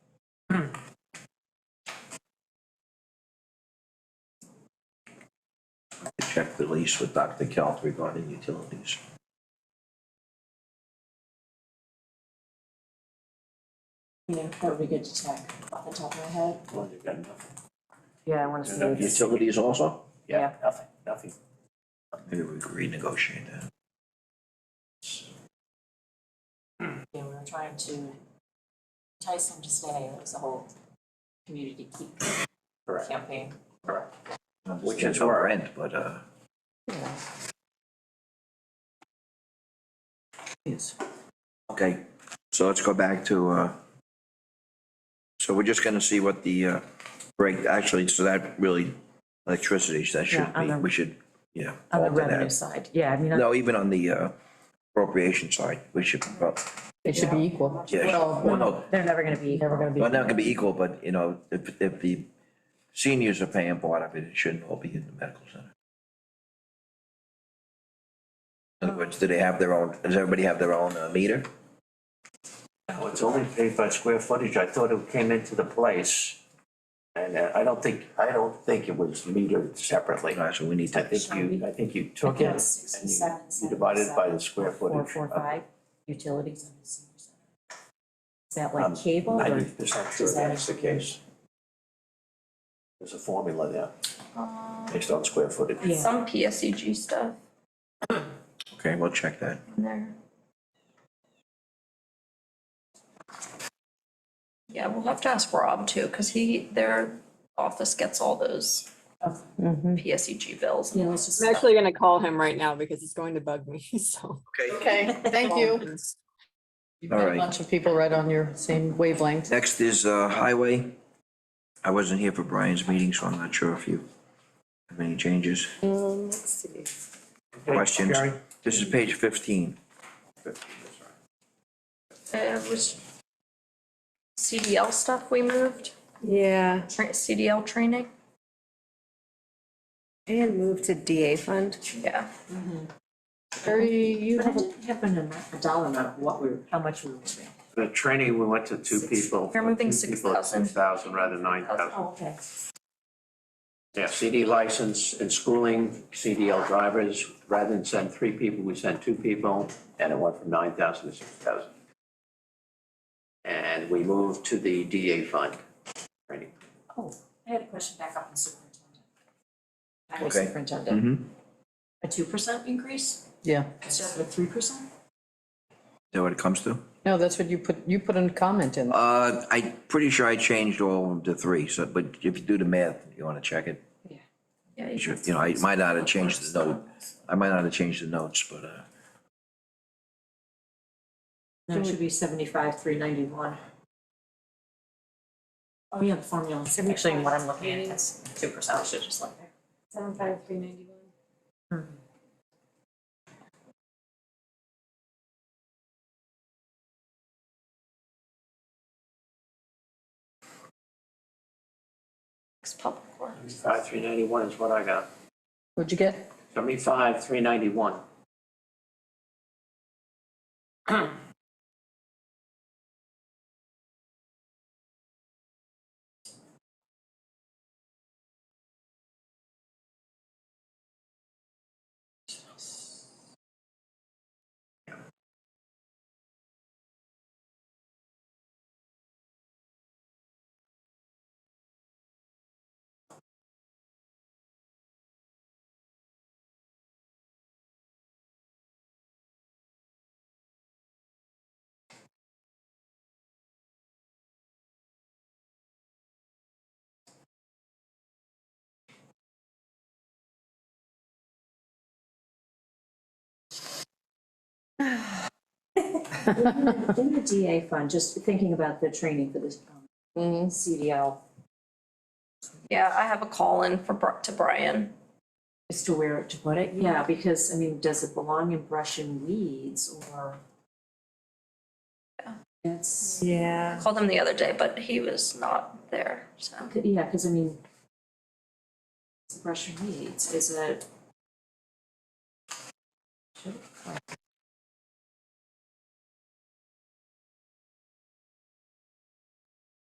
cross-check the lease with Dr. Kelt regarding utilities. You know, that would be good to check off the top of my head. Well, they've got nothing, Yeah, I wanna They've see. got this. Utilities also? yeah, nothing, nothing. Maybe we could renegotiate that. You know, we were trying to entice them to stay, it was the whole community keep Correct. campaign. Which is our end, but, uh, Yeah. Yes. okay, so let's go back to, uh, so we're just gonna see what the, uh, break, actually, so that really, electricity, that should Yeah, on be, the- we should, yeah. On the alter that. uh, revenue side, yeah, I mean, I- No, even on the uh, appropriation side, we should, well, It should be equal. yeah, well, no, they're never gonna be. Never gonna be. well, not gonna be equal, but, you know, if, if the seniors are paying part of it, it shouldn't all be in the medical center. In other words, do they have their own, does everybody have their own uh, meter? No, it's only paid by square footage, I thought it came into the place. And uh, I don't think, I don't think it was metered separately. All right, so we need I to, think you, I think you Account took it and you- 67, you divided it by the square Four, footage. four, five, utilities. Is that I'm like cable or? Ninety percent sure Is that that's the case. There's a formula there, based on square footage. Yeah. Some PSEG stuff okay, we'll check that. in there. Yeah, we'll have to ask Rob too, cause he, their office gets all those PSEG bills. You know, it's just. I'm actually gonna call him right now because it's going to bug me, so. Okay, thank you. All A right, bunch of people right on your same wavelength. next is uh, highway. I wasn't here for Brian's meeting, so I'm not sure if you have any changes. Um, let's see. questions. This is page fifteen. It was CDL stuff we moved, Yeah, tra- CDL training, and move to DA fund. yeah. Terry, you But I have a, didn't have an amount, a dollar amount of what we were, how much we were paying. The training, we went to two people. We're moving two people at 6,000. 6,000 rather than 9,000. Oh, okay. Yeah, CD license and schooling, CDL drivers, rather than send three people, we sent two people, and it went from nine thousand to six thousand. And we moved to the DA fund, training. Oh, I had a question back up on superintendent. I'm Okay. superintendent. Mm-hmm. A two percent increase yeah. instead of a three percent? Is that what it comes to? No, that's what you put, you put a comment in. Uh, I'm pretty sure I changed all of them to three, so, but if you do the math, you wanna check it. Yeah, You you should, you know, I might not have changed the note, I might not have changed the notes, but, uh, No, it should be seventy-five, three ninety-one. Oh, yeah, the formula, actually, what I'm looking at is two percent, I should just look there. Seven five three ninety-one. fix public works. Five, three ninety-one is what I got, What'd you get? seventy-five, three ninety-one. In the DA fund, just thinking about the training for this um, Mm-hmm. CDL, Yeah, I have a call in for, Bri- to Brian. as to where to put it, yeah, because, I mean, does it belong in brush and weeds or? It's, Yeah. I Called him the other day, but he was not there, so. yeah, because I mean, brush and weeds is a.